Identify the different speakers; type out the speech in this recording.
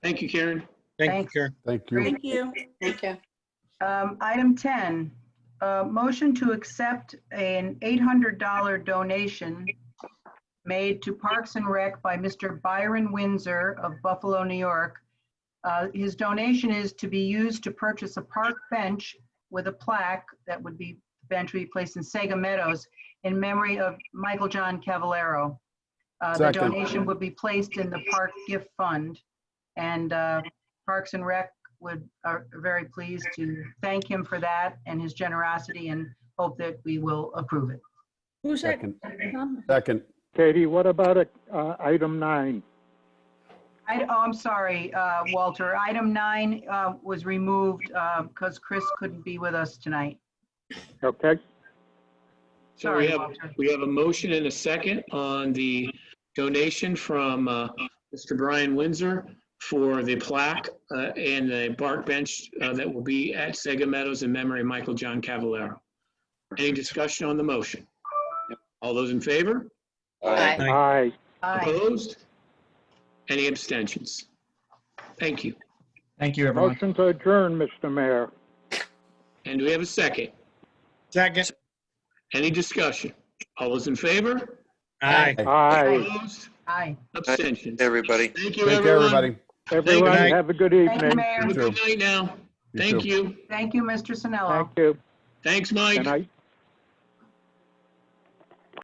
Speaker 1: Thank you, Karen.
Speaker 2: Thank you,
Speaker 3: Thanks.
Speaker 2: Karen.
Speaker 4: Thank you.
Speaker 3: Great.
Speaker 5: Thank you.
Speaker 3: Thank you. Um, Item 10, uh, motion to accept an $800 donation made to Parks and Rec by Mr. Byron Windsor of Buffalo, New York. Uh, His donation is to be used to purchase a park bench with a plaque that would be, bench would be placed in Sega Meadows in memory of Michael John Cavallaro. Uh, The
Speaker 4: Second.
Speaker 3: donation would be placed in the Park Gift Fund. And uh, Parks and Rec would, are very pleased to thank him for that and his generosity and hope that we will approve it.
Speaker 5: Who's that?
Speaker 4: Second.
Speaker 5: Um,
Speaker 4: Second.
Speaker 6: Katie, what about uh, item nine?
Speaker 3: I, oh, I'm sorry, uh, Walter. Item nine uh, was removed because Chris couldn't be with us tonight.
Speaker 1: So
Speaker 6: Okay,
Speaker 1: we
Speaker 3: Sorry,
Speaker 1: have,
Speaker 3: Walter.
Speaker 1: we have a motion and a second on the donation from uh, Mr. Brian Windsor for the plaque uh, and the bark bench uh, that will be at Sega Meadows in memory of Michael John Cavallaro. Any discussion on the motion? All those in favor?
Speaker 7: Aye.
Speaker 2: Aye.
Speaker 6: aye.
Speaker 3: Aye.
Speaker 1: Opposed? Any abstentions? Thank you.
Speaker 8: Thank you, everyone.
Speaker 6: Motion to adjourn, Mr. Mayor.
Speaker 1: And do we have a second?
Speaker 2: Second.
Speaker 1: Any discussion? All those in favor?
Speaker 2: Aye.
Speaker 6: Aye.
Speaker 1: Opposed?
Speaker 3: Aye.
Speaker 1: Abstentions?
Speaker 7: Everybody.
Speaker 1: Thank you,
Speaker 4: Take care,
Speaker 1: everyone.
Speaker 4: everybody.
Speaker 6: Everyone,
Speaker 2: night.
Speaker 6: have a good
Speaker 3: Thank you,
Speaker 6: evening.
Speaker 3: Mayor.
Speaker 1: Have a
Speaker 4: You too.
Speaker 1: good night now.
Speaker 4: You
Speaker 1: Thank
Speaker 4: too.
Speaker 1: you.
Speaker 3: Thank you, Mr. Sinello.
Speaker 6: Thank you.
Speaker 1: Thanks, Mike.
Speaker 6: Good night.